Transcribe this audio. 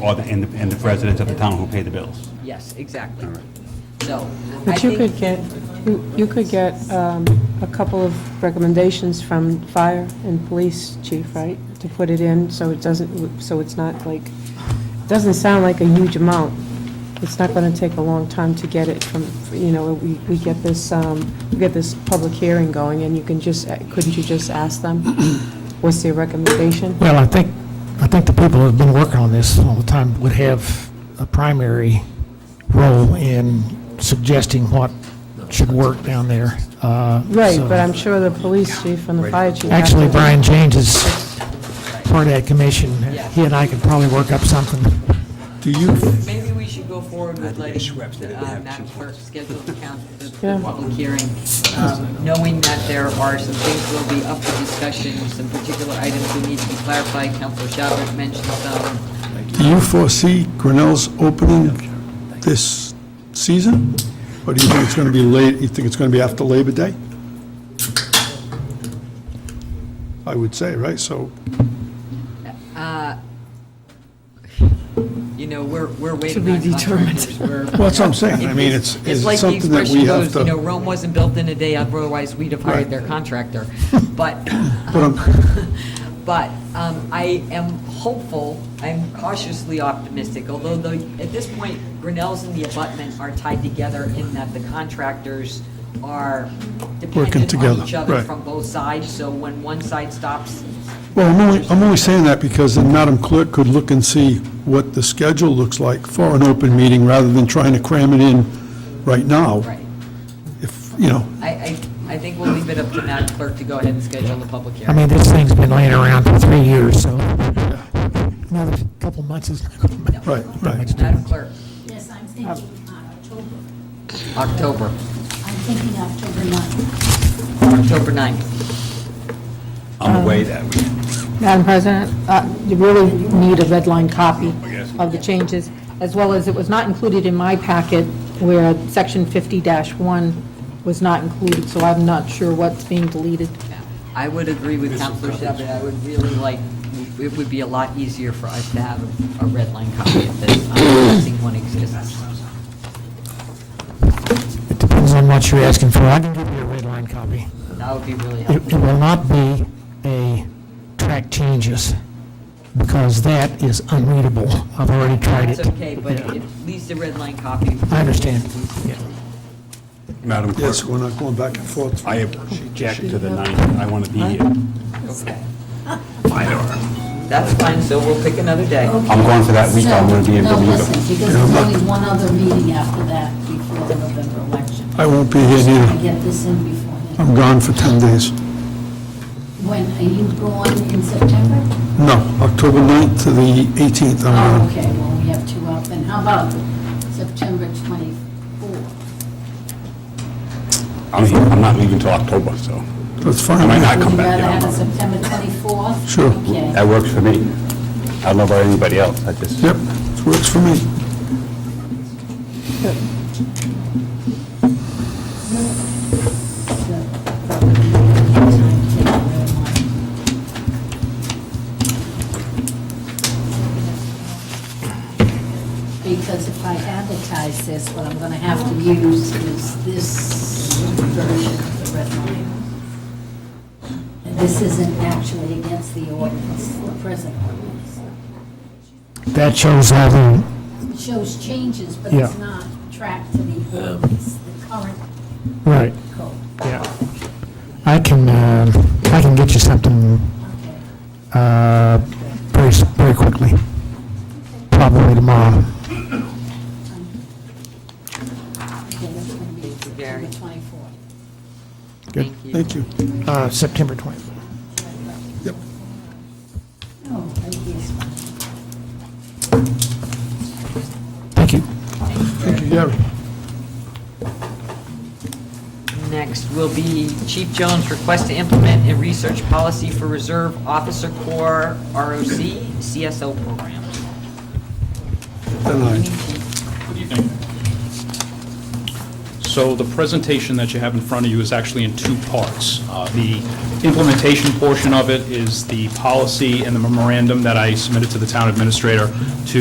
or the, and the, and the residents of the town who pay the bills. Yes, exactly. All right. So I But you could think, get, you you could get um, a couple of recommendations from fire and police chief, right? To put it in, so it doesn't, so it's not like, it doesn't sound like a huge amount. It's not going to take a long time to get it from, you know, we we get this, um, we get this public hearing going, and you can just, uh, couldn't you just ask them, what's their recommendation? Well, I think, I think the people who've been working on this all the time would have a primary role in suggesting what should work down there. Uh, Right, so- but I'm sure the police chief and the fire chief. have Actually, to- Brian James is part of that commission. Yeah. He and I could probably work up something. Do you, maybe we should go forward with letting uh, Madam Clerk schedule the count, the- the Yeah. public hearing, um, knowing that there are some things that will be up for discussion, some particular items that need to be clarified. Counselor Shabbat mentioned some. do you foresee Grinnell's opening this season? Or do you think it's going to be late, you think it's going to be after Labor Day? I would say, right, so, You know, we're, we're waiting be on contractors. We're- well, that's what I'm saying, I mean, it's, it's It's like the something that we expression have goes, you know, to, Rome wasn't built in a day, otherwise we'd have hired Right. their contractor. But, but I'm, but um, I am hopeful, I'm cautiously optimistic, although the, at this point, Grinnell's and the abutment are tied together in that the contractors are dependent on together, each other right. from both sides, so when one side stops, Well, I'm only, I'm only saying that because the Madam Clerk could look and see what the schedule looks like for an open meeting, rather than trying to cram it in right now. right. If, you know, I, I, I think we'll leave it up to Madam Clerk to go ahead and schedule the public I hearing. mean, this thing's been laying around for three years, so another couple months is not going to matter. right, right. Madam Clerk, Yes, I'm thinking Um, uh, October. October. I'm thinking October 9th. October 9th. I'm away that week. Madam President, uh, you really need a red line copy of the changes, as well as it was not included in my packet where section 50-1 was not included, so I'm not sure what's being deleted. I would agree with Counselor Shepard. I would really like, it would be a lot easier for us to have a red line copy of this. I'm guessing one exists. It depends on what you're asking for. I can give you a red line copy. That would be really It it helpful. will not be a track changes, because that is unreadable. I've already tried it. It's okay, but at least a red line copy. I understand. Yeah. Madam Clerk, Yes, we're not going back and forth. I object to the ninth, I want to be here. Okay. That's fine, so we'll pick another day. I'm going for that week, I'm gonna be in E. No, Bermuda. listen, because there's only one other meeting after that before the November election. I won't be here I neither. get this in before then. Oh. I'm gone for 10 days. When, are you going in September? No, October 9th to the 18th, Um, I'm Oh, gone. okay, well, we have two up, and how about September 24th? I'm, here. I'm not leaving till October, so That's I fine. might not Would come you back. rather you have know. it September 24th? Sure. Okay, That works for me. I don't know about anybody else, I just. Yep, it works for me. so probably the time to take a red line. Because if I advertise this, what I'm gonna have to use is this version of the red line. And this isn't actually against the ordinance, the present ordinance. That shows how the, It shows changes, but Yeah. it's not tracked to the ordinance, the current right, code. yeah. I can, uh, I can get you something Okay. uh, very, s- very quickly, probably tomorrow. Okay, that's gonna be Gary. September 24th. Thank you. Thank you. Uh, September 24th. Yep. Oh, right here's one. Thank you. Thank you, Gary. Next will be Chief Jones' request to implement a research policy for Reserve Officer Corps ROC CSO program. Then I- So the presentation that you have in front of you is actually in two parts. Uh, The implementation portion of it is the policy and the memorandum that I submitted to the town administrator to